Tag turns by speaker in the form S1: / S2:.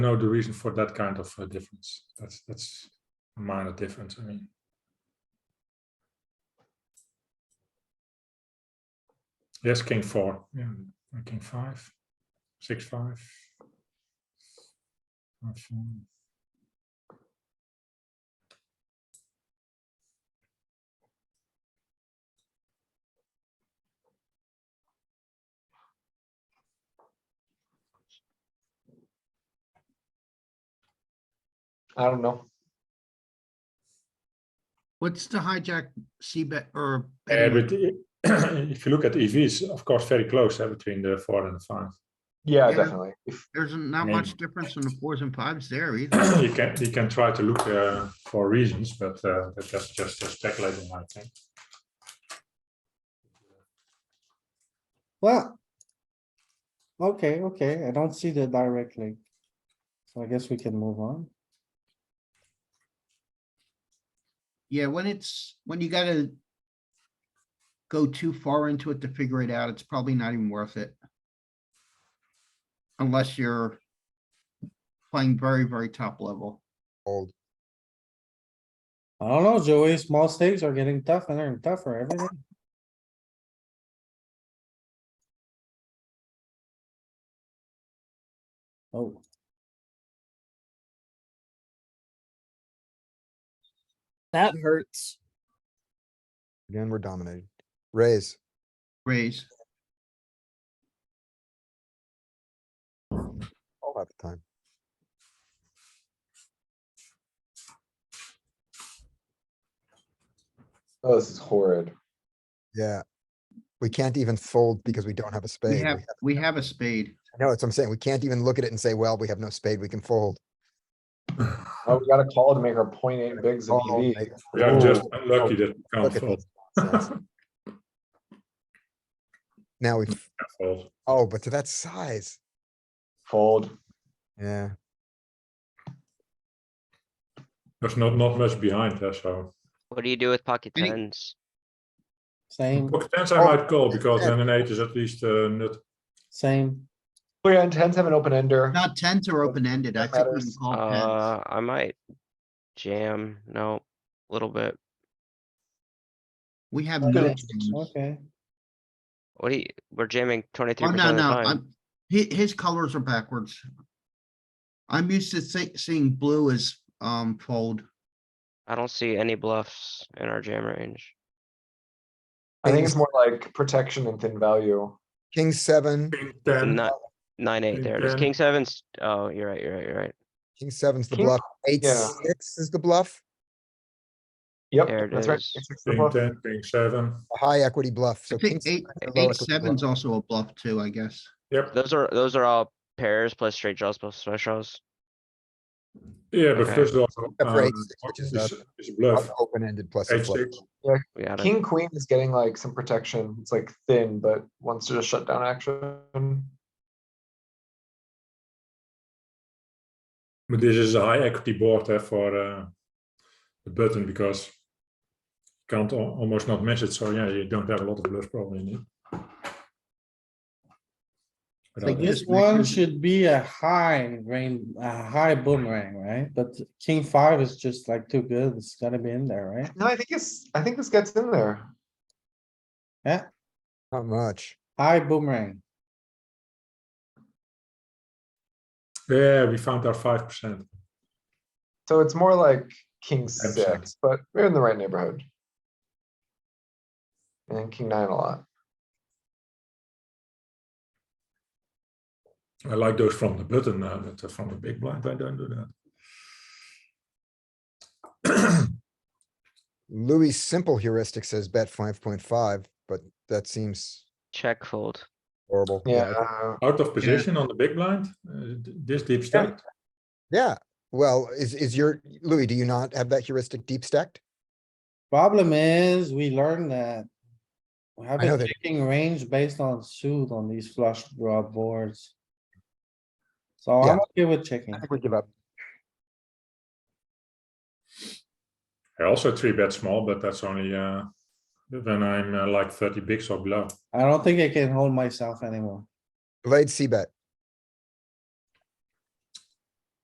S1: know the reason for that kind of uh, difference. That's, that's a minor difference, I mean. Yes, king four, yeah, and king five, six, five. Five, four.
S2: I don't know.
S3: What's the hijack C bet or?
S1: Yeah,
S3: betting
S1: but i- if you look at EVs, of course, very close uh, between the four and the five.
S2: Yeah,
S3: Yeah.
S2: definitely. If
S3: There's not
S1: Yeah.
S3: much difference in the fours and fives there either.
S1: you can you can try to look uh, for reasons, but uh, that- that's just uh, speculating, I think.
S4: Well. Okay, okay, I don't see the direct link. So I guess we can move on.
S3: Yeah, when it's, when you gotta go too far into it to figure it out, it's probably not even worth it. Unless you're playing very, very top level.
S4: I don't know, Joey, small stakes are getting tougher and tougher every day. Oh,
S5: That hurts.
S6: Again, we're dominated. Raise.
S3: Raise. Oh.
S6: All have the time.
S2: oh, this is horrid.
S6: Yeah. We can't even fold because we don't have a spade.
S3: We
S6: We
S3: have,
S6: have-
S3: we have a spade.
S6: No, that's what I'm saying. We can't even look at it and say, well, we have no spade, we can fold.
S2: Oh, we got a call to make our point eight bigs of E
S6: Call,
S2: EV.
S6: make-
S1: We are just
S6: Ooh.
S1: unlucky that we can't
S6: Oh, Look at
S1: fold.
S6: this nonsense. Now we,
S1: fold.
S6: oh, but to that size.
S2: Fold.
S6: Yeah,
S1: There's not not much behind there, so
S7: What do you do with pocket
S3: Any-
S7: tens?
S4: same,
S1: pocket tens I
S6: Oh.
S1: might call because then an eight is at least uh, nut.
S4: same.
S2: Oh yeah, and tens have an open ender.
S3: Not tens are open ended. I
S2: That
S3: think we
S2: matters.
S3: can call tens.
S7: Uh, I might jam, no, little bit.
S3: We have
S4: Okay,
S3: no jams.
S4: Okay,
S7: What do you, we're jamming twenty-three
S3: Oh,
S7: percent
S3: no,
S7: of the
S3: no,
S7: time.
S3: I'm, his, his colors are backwards. I'm used to see, seeing blue as, um, fold.
S7: I don't see any bluffs in our jam range.
S2: I think it's more like protection and thin value.
S6: king seven,
S1: King ten.
S7: Not, nine, eight
S1: King
S7: there. There's
S1: 10.
S7: king sevens. Oh, you're right, you're right, you're right.
S6: king seven's the
S2: King-
S6: bluff, eight,
S2: yeah.
S6: six is the bluff,
S7: There
S2: Yep,
S7: it
S2: that's right.
S7: is.
S2: It's like the
S1: King
S2: bluff.
S1: ten, king seven.
S6: a high equity bluff,
S3: I
S6: so king.
S3: think eight,
S6: seven is a low
S3: eight,
S6: equity bluff.
S3: seven's also a bluff too, I guess.
S1: Yep.
S7: Those are, those are all pairs plus straight draws plus smash draws.
S1: Yeah, but
S7: Okay.
S1: first of all,
S6: Up
S1: uh,
S6: raise, which is
S1: is,
S6: up.
S1: is a bluff.
S6: Open-ended plus a
S1: Eight
S6: flop.
S1: six.
S7: We got it.
S2: King queen is getting like some protection. It's like thin, but wants to just shut down action.
S1: But this is a high equity board there for uh, the button because you can't al- almost not miss it. So yeah, you don't have a lot of bluffs probably in it. But I
S3: Like
S1: think-
S3: this
S4: this one
S3: makes-
S4: should be a high rain, a high boomerang, right? But king five is just like too good, it's gotta be in there, right?
S2: No, I think it's, I think this gets in there.
S6: Not much.
S4: High boomerang,
S1: yeah, we found our five percent.
S2: So it's more like king
S1: 10%.
S2: six, but we're in the right neighborhood. And king nine a lot.
S1: I like those from the button, uh, but uh, from the big blind, I don't do that.
S6: Louis' simple heuristic says bet five point five, but that seems
S7: Check fold.
S6: horrible.
S2: Yeah,
S1: Out of position on the big blind, uh, d- this deep stack.
S6: Yeah, well, is, is your, Louis, do you not have that heuristic deep stacked?
S4: problem is, we learned that. We have
S6: I know
S4: a
S6: that-
S4: checking range based on suit on these flush draw boards. So
S6: Yeah.
S4: I'm okay with checking,
S6: I think we give up.
S1: I also three bet small, but that's only uh, when I'm uh, like thirty bigs or below.
S4: I don't think I can hold myself anymore.
S6: Blade C bet.